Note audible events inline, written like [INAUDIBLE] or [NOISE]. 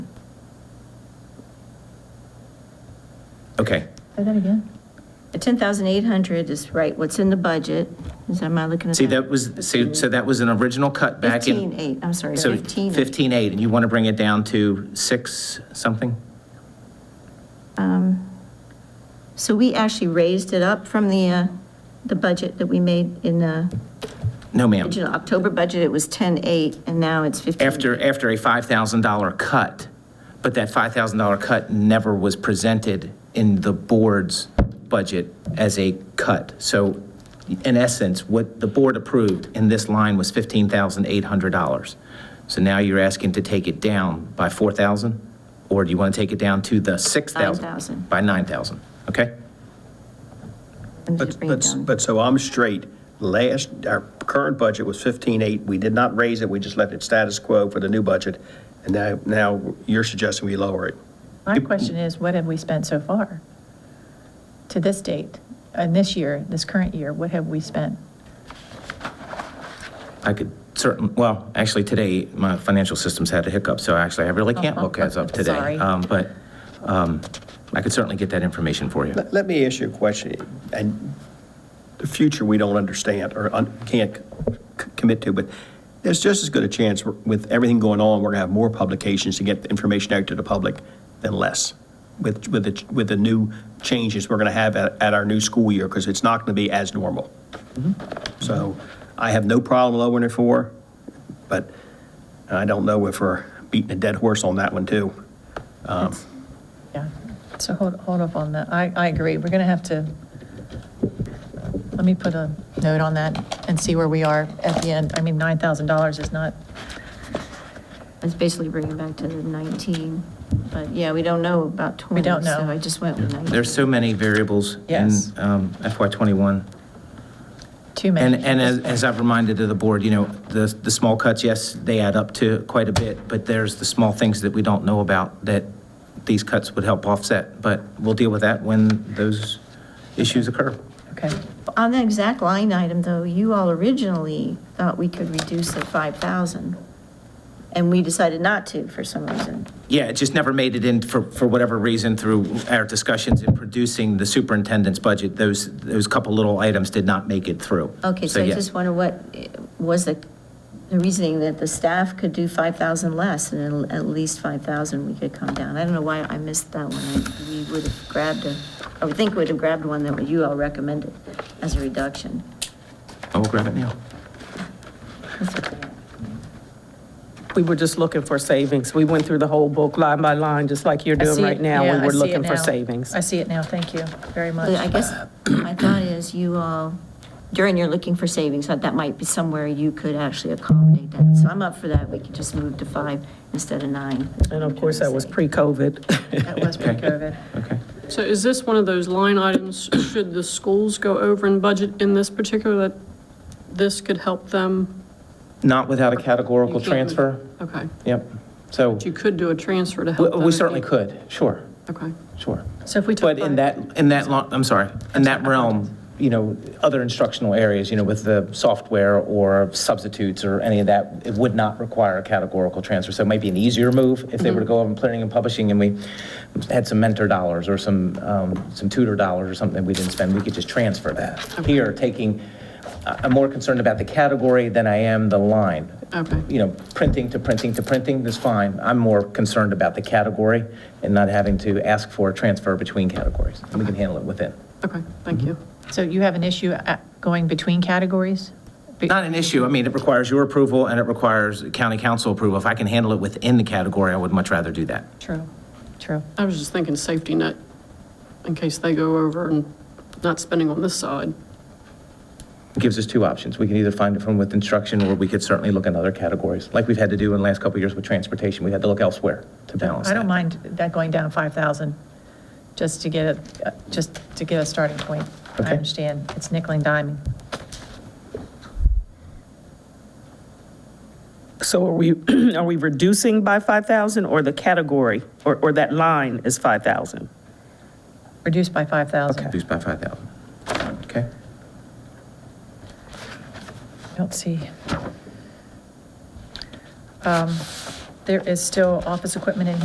Okay. Say that again? The 10,800 is right, what's in the budget, is, am I looking at that? See, that was, so, so that was an original cut back in. 15,800, I'm sorry, So 15. 15.8, and you want to bring it down to 6 something? So we actually raised it up from the, uh, the budget that we made in the No, ma'am. original October budget, it was 10,800, and now it's 15. After, after a $5,000 cut, but that $5,000 cut never was presented in the board's budget as a cut. So in essence, what the board approved in this line was $15,800. So now you're asking to take it down by 4,000? Or do you want to take it down to the 6,000? 9,000. By 9,000, okay? And just But, bring it but, down. but so I'm straight. Last, our current budget was 15.8. We did not raise it. We just left it status quo for the new budget. And now, now you're suggesting we lower it. My question is, what have we spent so far? To this date, and this year, this current year, what have we spent? I could certain, well, actually, today, my financial systems had a hiccup, so actually, I really can't look as of today. [LAUGHS] Sorry. Um, But um, I could certainly get that information for you. Let, let me ask you a question, and the future we don't understand or un- can't c- commit to, but there's just as good a chance with everything going on, we're gonna have more publications to get the information out to the public than less with, with the, with the new changes we're gonna have at, at our new school year, because it's not gonna be as normal. So I have no problem lowering it for, but I don't know if we're beating a dead horse on that one, too. Yeah, so hold, hold up on that. I, I agree, we're going to have to, let me put a note on that and see where we are at the end. I mean, $9,000 is not, It's basically bringing back to the 19, but yeah, we don't know about 20. don't know. So I just went with 19. There's so many variables in um, Yes. FY '21. too many. And, and as, as I've reminded of the board, you know, the, the small cuts, yes, they add up to quite a bit, but there's the small things that we don't know about that these cuts would help offset. But we'll deal with that when those issues occur. Okay, On the exact line item, though, you all originally thought we could reduce it 5,000, and we decided not to for some reason. Yeah, it just never made it in for, for whatever reason through our discussions in producing the superintendent's budget. Those, those couple little items did not make it through. Okay, so I yeah. just wonder what eh, was the the reasoning that the staff could do 5,000 less, and at at least 5,000 we could come down. I don't know why I missed that one. I- We would have grabbed a, I would think we would have grabbed one that you all recommended as a reduction. I will grab it now. That's okay. We were just looking for savings. We went through the whole book line by line, just like you're I doing see it- right now. yeah, We I were see it looking now. for savings. I see it now, thank you very much. But I guess my thought is you all, during your looking for savings, that that might be somewhere you could actually accommodate that. So I'm up for that. We could just move to five instead of nine. And of course, that was pre-COVID. [LAUGHS] That was pre-COVID. Okay. So is this one of those line items, should the schools go over in budget in this particular, that this could help them? Not without a categorical You can't- transfer? Okay, Yep. So you could do a transfer to we help them. we if certainly they- could, sure, Okay. sure. So if we took. But in that, in that, lo- I'm sorry, in that realm, you know, other instructional areas, you know, with the software or substitutes or any of that, it would not require a categorical transfer. So it might be an easier move if they were to go over and planning and publishing and we had some mentor dollars or some, um, some tutor dollars or something we didn't spend, we could just transfer that. Here, taking, I- I'm more concerned about the category than I am the line. Okay. You know, printing to printing to printing is fine. I'm more concerned about the category and not having to ask for a transfer between categories. And we can handle it within. Okay, Mm-hmm. thank you. So you have an issue uh, going between categories? Be- Not an issue. I mean, it requires your approval and it requires county council approval. If I can handle it within the category, I would much rather do that. True, true. I was just thinking safety net, in case they go over and not spending on this side. It gives us two options. We can either find it from with instruction or we could certainly look in other categories, like we've had to do in the last couple of years with transportation. We had to look elsewhere to balance I don't that. mind that going down 5,000, just to get it, uh, just to get a starting point. I Okay. understand, it's nickel and diming. So are we, [CLEARS THROAT] are we reducing by 5,000 or the category, or, or that line is 5,000? Reduced by 5,000. Reduced by 5,000. Okay? I don't see. Um, There is still office equipment in